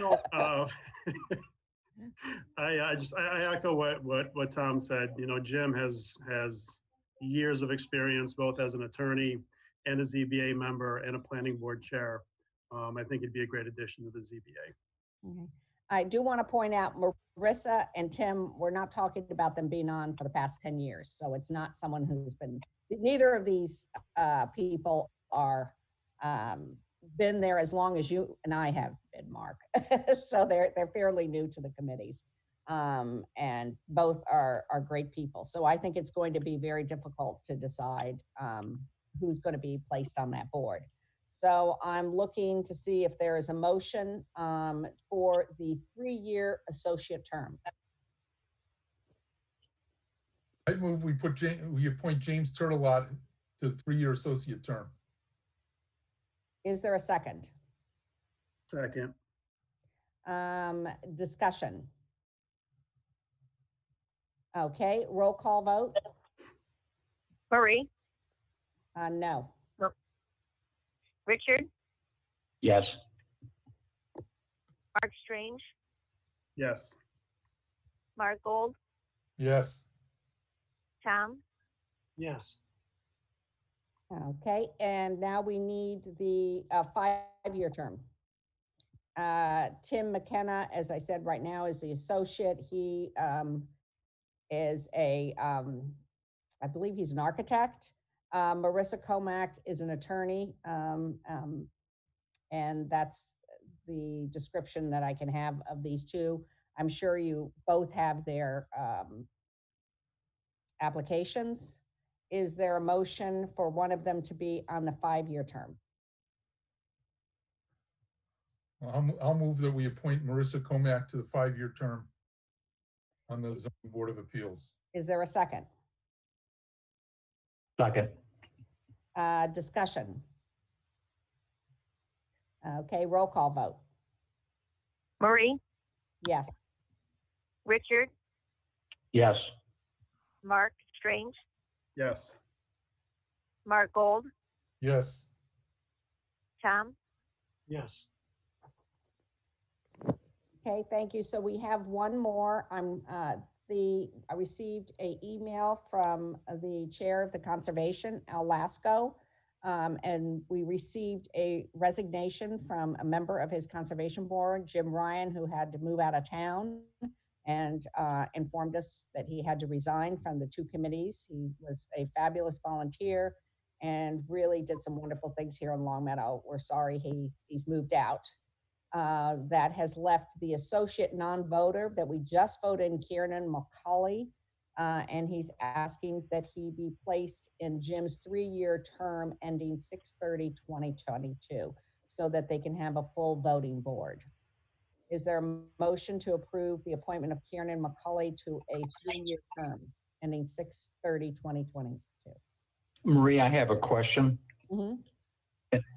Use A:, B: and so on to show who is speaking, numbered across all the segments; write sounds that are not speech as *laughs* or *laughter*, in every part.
A: *laughs* So, uh, I, I just, I I echo what, what, what Tom said. You know, Jim has, has years of experience, both as an attorney and a ZBA member and a planning board chair. Um, I think he'd be a great addition to the ZBA.
B: Okay. I do want to point out Marissa and Tim, we're not talking about them being on for the past 10 years. So it's not someone who's been, neither of these uh, people are, um, been there as long as you and I have been, Mark. *laughs* So they're, they're fairly new to the committees. Um, And both are, are great people. So I think it's going to be very difficult to decide um, who's going to be placed on that board. So I'm looking to see if there is a motion um, for the three-year associate term.
C: I'd move we put Ja, we appoint James Turtelot to the three-year associate term.
B: Is there a second?
A: Second,
B: Um, Discussion? Okay, roll call vote?
D: Marie,
B: Uh, No.
D: Richard,
E: Yes.
D: Mark Strange,
A: yes.
D: Mark Gold,
C: Yes,
D: Tom,
A: Yes.
B: Okay, and now we need the uh, five-year term. Uh, Tim McKenna, as I said, right now is the associate. He um, is a, um, I believe he's an architect. Uh, Marissa Comack is an attorney. um, um, And that's the description that I can have of these two. I'm sure you both have their um, applications. Is there a motion for one of them to be on the five-year term?
C: I'll, mo- I'll move that we appoint Marissa Comack to the five-year term on the zoning board of appeals.
B: Is there a second?
E: Second.
B: Uh, Discussion? Okay, roll call vote.
D: Marie,
B: Yes.
D: Richard,
E: Yes.
D: Mark Strange,
A: Yes,
D: Mark Gold,
C: Yes,
D: Tom,
B: Okay, thank you. So we have one more. I'm, uh, the, I received a email from the Chair of the Conservation, Al Lasco. um, And we received a resignation from a member of his Conservation Board, Jim Ryan, who had to move out of town and uh, informed us that he had to resign from the two committees. He was a fabulous volunteer and really did some wonderful things here in Long Meadow. We're sorry he, he's moved out uh, that has left the associate non-voter that we just voted in Kieran McCauley. Uh, and he's asking that he be placed in Jim's three-year term ending 2022, so that they can have a full voting board. Is there a motion to approve the appointment of Kieran McCauley to a three-year term ending 2022?
E: Marie, I have a question.
B: Mhm.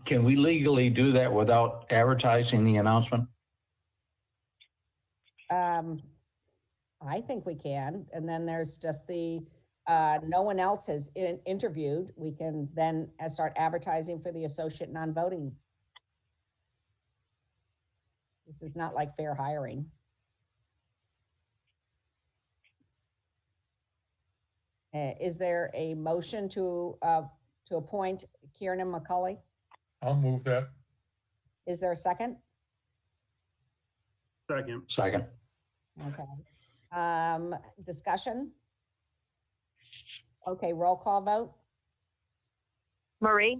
E: Can we legally do that without advertising the announcement?
B: Um, I think we can, and then there's just the, uh, no one else has in- interviewed, we can then uh, start advertising for the associate non-voting. This is not like fair hiring. Uh, is there a motion to, uh, to appoint Kieran McCully?
C: I'll move that.
B: Is there a second?
A: second,
E: Second.
B: Okay. Um, discussion? Okay, roll call vote?
D: Marie,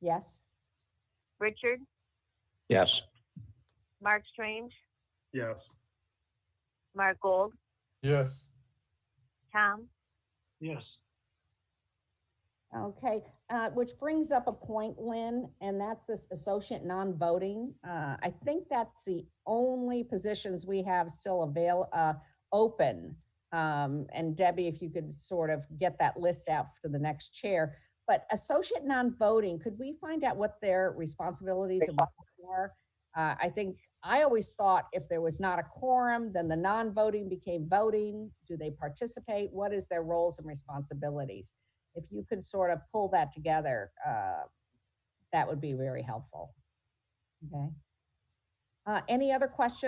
B: Yes?
D: Richard,
E: Yes.
D: Mark Strange,
A: yes.
D: Mark Gold,
C: Yes,
D: Tom,
A: Yes.
B: Okay, uh, which brings up a point, Lynn, and that's this associate non-voting. Uh, I think that's the only positions we have still avail, uh, open. Um, and Debbie, if you could sort of get that list out for the next chair. But associate non-voting, could we find out what their responsibilities and roles are? Uh, I think, I always thought if there was not a quorum, then the non-voting became voting. Do they participate? What is their roles and responsibilities? if you could sort of pull that together, uh, that would be very helpful. Okay. Uh, Any other questions